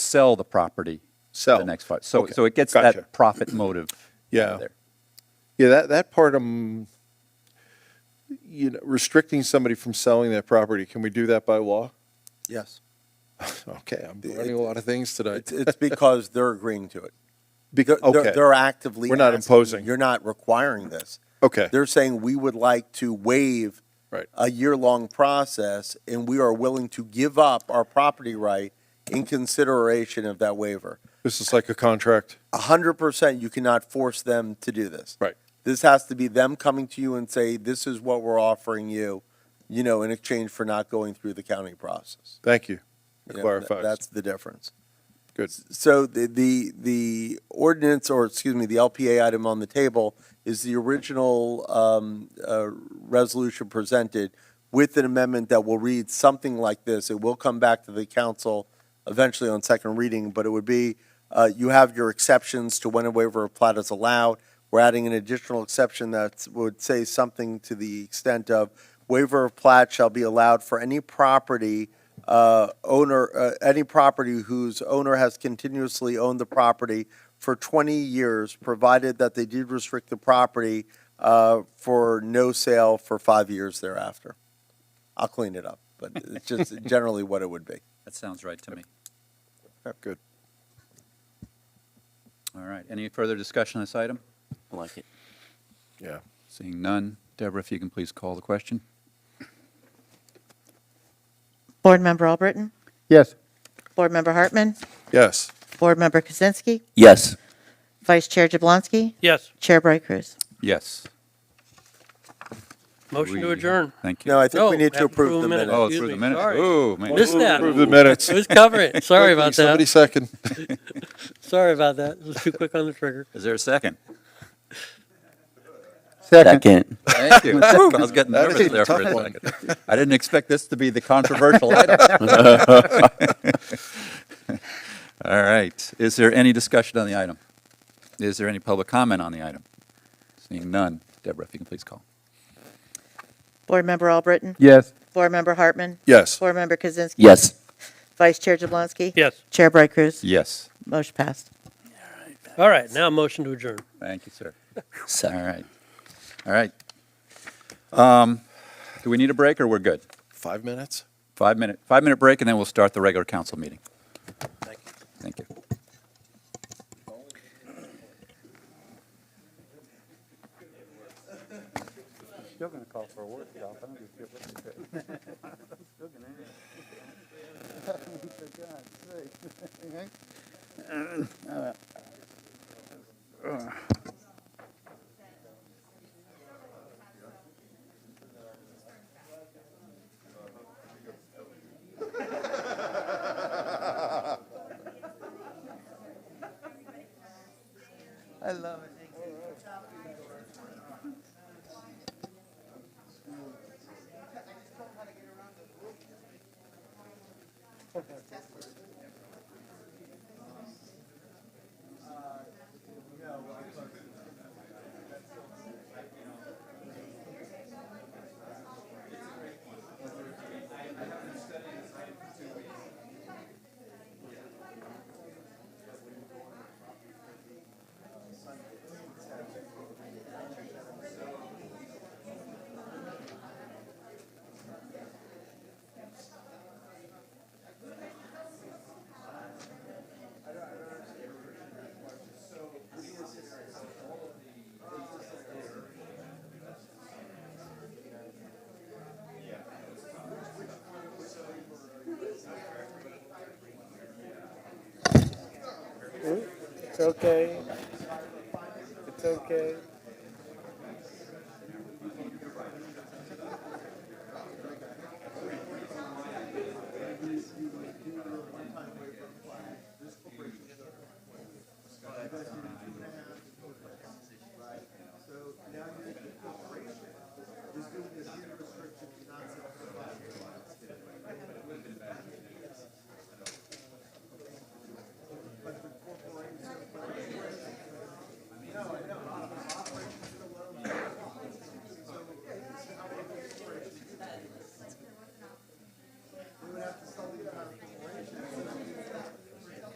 sell the property the Sell. next five. So, Okay. so it gets Gotcha. that profit motive. Yeah. there. Yeah, that, that part, um, you know, restricting somebody from selling that property, can we do that by law? Yes. Okay, I'm It- learning a lot of things today. It's, it's because they're agreeing to it. Because okay. they're, they're actively. We're not asking, imposing. You're not requiring this. Okay, They're saying we would like to waive right, a year-long process and we are willing to give up our property right in consideration of that waiver. this is like a contract. A hundred percent, you cannot force them to do this. Right. This has to be them coming to you and say, this is what we're offering you, you know, in exchange for not going through the county process. Thank you. It You know, th- clarifies. That's the difference. Good. So the, the, the ordinance, or excuse me, the LPA item on the table is the original um, uh, resolution presented with an amendment that will read something like this. It will come back to the council eventually on second reading, but it would be, uh, you have your exceptions to when a waiver of plat is allowed. We're adding an additional exception that would say something to the extent of waiver of plat shall be allowed for any property uh, owner, uh, any property whose owner has continuously owned the property for 20 years, provided that they did restrict the property uh, for no sale for five years thereafter. I'll clean it up, but it's just generally what it would be. That sounds right to me. Good. All right. Any further discussion on this item? I like it. Yeah. Seeing none. Deborah, if you can please call the question. Board Member Albritton? Yes. Board Member Hartman? Yes. Board Member Kaczynski? Yes. Vice Chair Jablonski? Yes. Chair Bright Cruz? Yes. Motion to We- adjourn. Thank you. No, I think we No, need have to approve the minutes. Oh, Excuse through the me, minutes. sorry. Oh, man. Missed that. Approve the minutes. Who's covering it? Sorry about Somebody that. second. Sorry about that. It was too quick on the trigger. Is there a second? Second. Thank you. I was getting That is nervous there for a a tough one. second. I didn't expect this to be the controversial item. All right. Is there any discussion on the item? Is there any public comment on the item? Seeing none. Deborah, if you can please call. Board Member Albritton? Yes. Board Member Hartman? Yes. Board Member Kaczynski? Yes. Vice Chair Jablonski? Yes. Chair Bright Cruz? Yes. Motion passed. All right, now motion to adjourn. Thank you, sir. All Second. right. All right. Um, do we need a break or we're good? Five minutes? Five minute, five minute break and then we'll start the regular council meeting. Thank you. Thank you. It's okay. It's okay.